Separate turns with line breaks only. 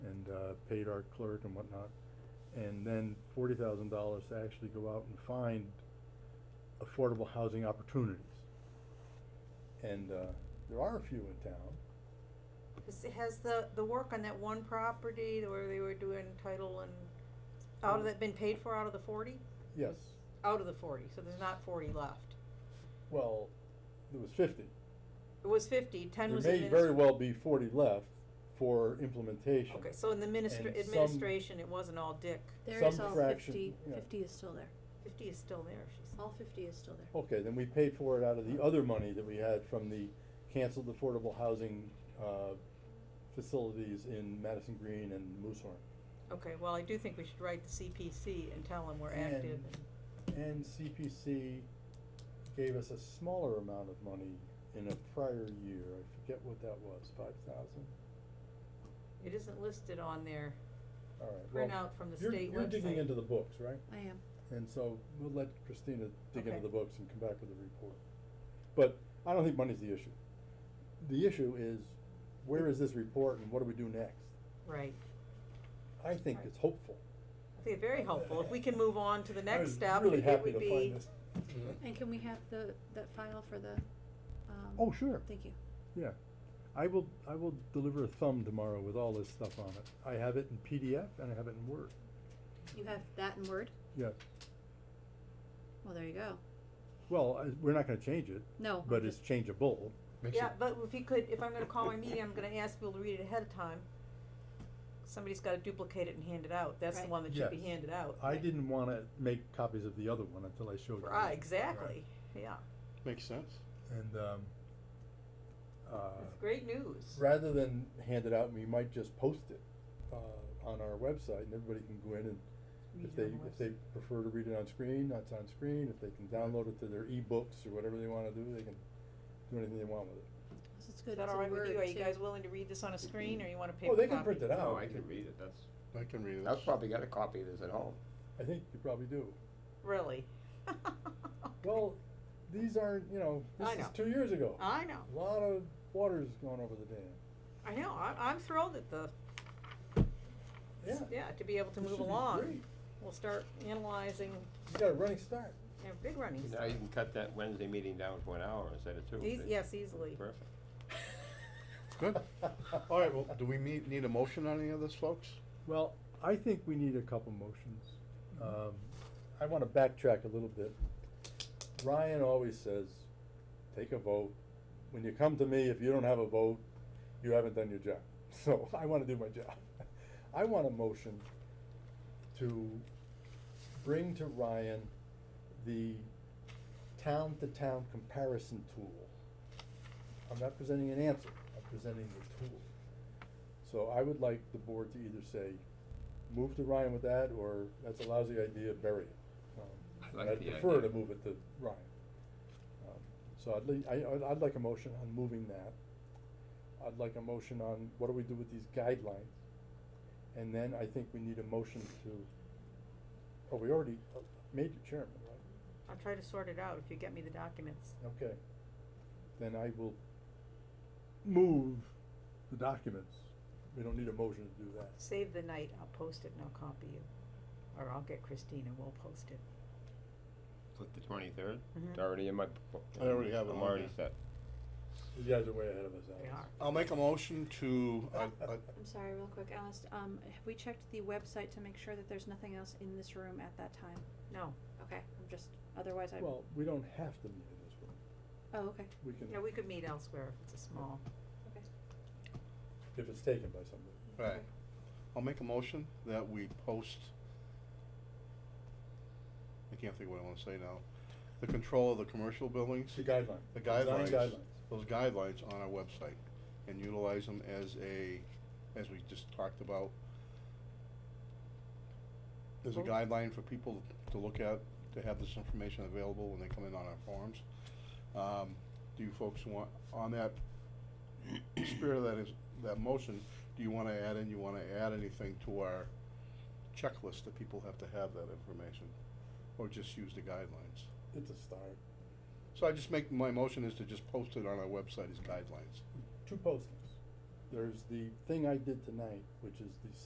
uh, paid our clerk and whatnot, and then forty thousand dollars to actually go out and find affordable housing opportunities. And, uh, there are a few in town,
Has- Has the, the work on that one property where they were doing title and, out of that been paid for out of the forty?
yes,
Out of the forty, so there's not forty left.
well, there was fifty.
It was fifty. Ten was
There may very
administ-
well be forty left for implementation.
Okay, so in the minister,
And some-
administration, it wasn't all Dick.
There
Some
is all
fraction,
fifty. Fifty
yeah.
is still there,
Fifty is still there, she said.
all fifty is still there.
Okay, then we paid for it out of the other money that we had from the canceled affordable housing, uh, facilities in Madison Green and Moosehorn.
Okay, well, I do think we should write the CPC and tell them we're active
And-
and.
And CPC gave us a smaller amount of money in a prior year, I forget what that was, five thousand?
It isn't listed on their
All right, well,
printout from the
you're,
state website.
you're digging into the books, right?
I am.
And so we'll let Christina dig into
Okay.
the books and come back with a report. But I don't think money's the issue. The issue is, where is this report and what do we do next?
Right.
I think
Right.
it's hopeful.
I think it's very helpful. If we can move on to the
I
next
was
step,
really
it
happy
would
to
be,
find this.
And can we have the, that file for the, um?
Oh, sure,
Thank you.
yeah. I will, I will deliver a thumb tomorrow with all this stuff on it. I have it in PDF and I have it in Word.
You have that in Word?
Yeah,
Well, there you go.
well, I, we're not gonna change it,
No.
but it's changeable.
Makes
yeah,
it-
but if you could, if I'm gonna call my meeting, I'm gonna ask people to read it ahead of time. Somebody's gotta duplicate it and hand it out. That's the
Right.
one that should be
Yes.
handed out.
I didn't wanna make copies of the other one until I showed you.
Right,
this.
exactly, yeah.
Makes sense.
And, um, uh,
It's great news.
rather than hand it out, we might just post it, uh, on our website and everybody can go in and if
Read it
they,
on the
if they prefer to read it on screen, that's on screen, if they can download it to their ebooks or whatever they wanna do, they can do anything they want with it.
This is
website. Is
good,
that
it's
all right
in
with you? Are
Word
you
too.
guys willing to read this on a screen or you want a paper
Oh,
copy?
they can print it out.
No, I can read it, that's,
I can read it.
I've probably got a copy of this at home.
I think you probably do.
Really?
Well, these aren't, you know,
I
this is
know.
two years ago.
I know,
A Lot of water's gone over the dam.
I know. I, I'm thrilled at the,
Yeah.
yeah, to be able to
this should
move
be
along.
great.
We'll start analyzing,
You got a running start.
you know, big running
Now
stuff.
you can cut that Wednesday meeting down to an hour instead of two.
Eas- yes, easily.
Perfect.
Good. All right, well, do we need, need a motion on any of this, folks?
Well, I think we need a couple motions. Um, I wanna backtrack a little bit. Ryan always says, take a vote. When you come to me, if you don't have a vote, you haven't done your job. So I wanna do my job. I want a motion to bring to Ryan the town-to-town comparison tool. I'm not presenting an answer, I'm presenting the tool. So I would like the board to either say, move to Ryan with that, or that's a lousy idea, bury it. Um,
I like
I'd
the
prefer to
idea.
move it to Ryan. Um, So I'd like, I, I'd- I'd like a motion on moving that. I'd like a motion on what do we do with these guidelines? And then I think we need a motion to, oh, we already uh, made you chairman, right?
I'll try to sort it out if you get me the documents.
Okay. Then I will move the documents. We don't need a motion to do that.
Save the night, I'll post it and I'll copy you. Or I'll get Christine and we'll post it.
Like the twenty-third?
Mhm.
It's already in my book.
I already have it
I'm
on
already
here.
set.
You guys are way ahead of us,
They
Alex.
are.
I'll make a motion to, I, I,
I'm sorry, real quick, Alice, um, have we checked the website to make sure that there's nothing else in this room at that time?
No,
Okay, I'm just, otherwise I, oh,
Well, we don't have to meet in this room.
okay,
We can,
yeah, we could meet elsewhere if it's a small.
okay.
if it's taken by somebody.
right. I'll make a motion that we post. I can't think of what I wanna say now. The control of the commercial buildings,
The guideline.
the
Design
guidelines, those guidelines on our website and utilize them as a, as we just talked about. There's a
Oh.
guideline for people to look at, to have this information available when they come in on our forums. Um, do you folks want, on that spirit of that is, that motion, do you wanna add in, you wanna add anything to our checklist that people have to have that information? Or just use the guidelines?
It's a start.
So I just make, my motion is to just post it on our website as guidelines.
Two postings. There's the thing I did tonight, which is the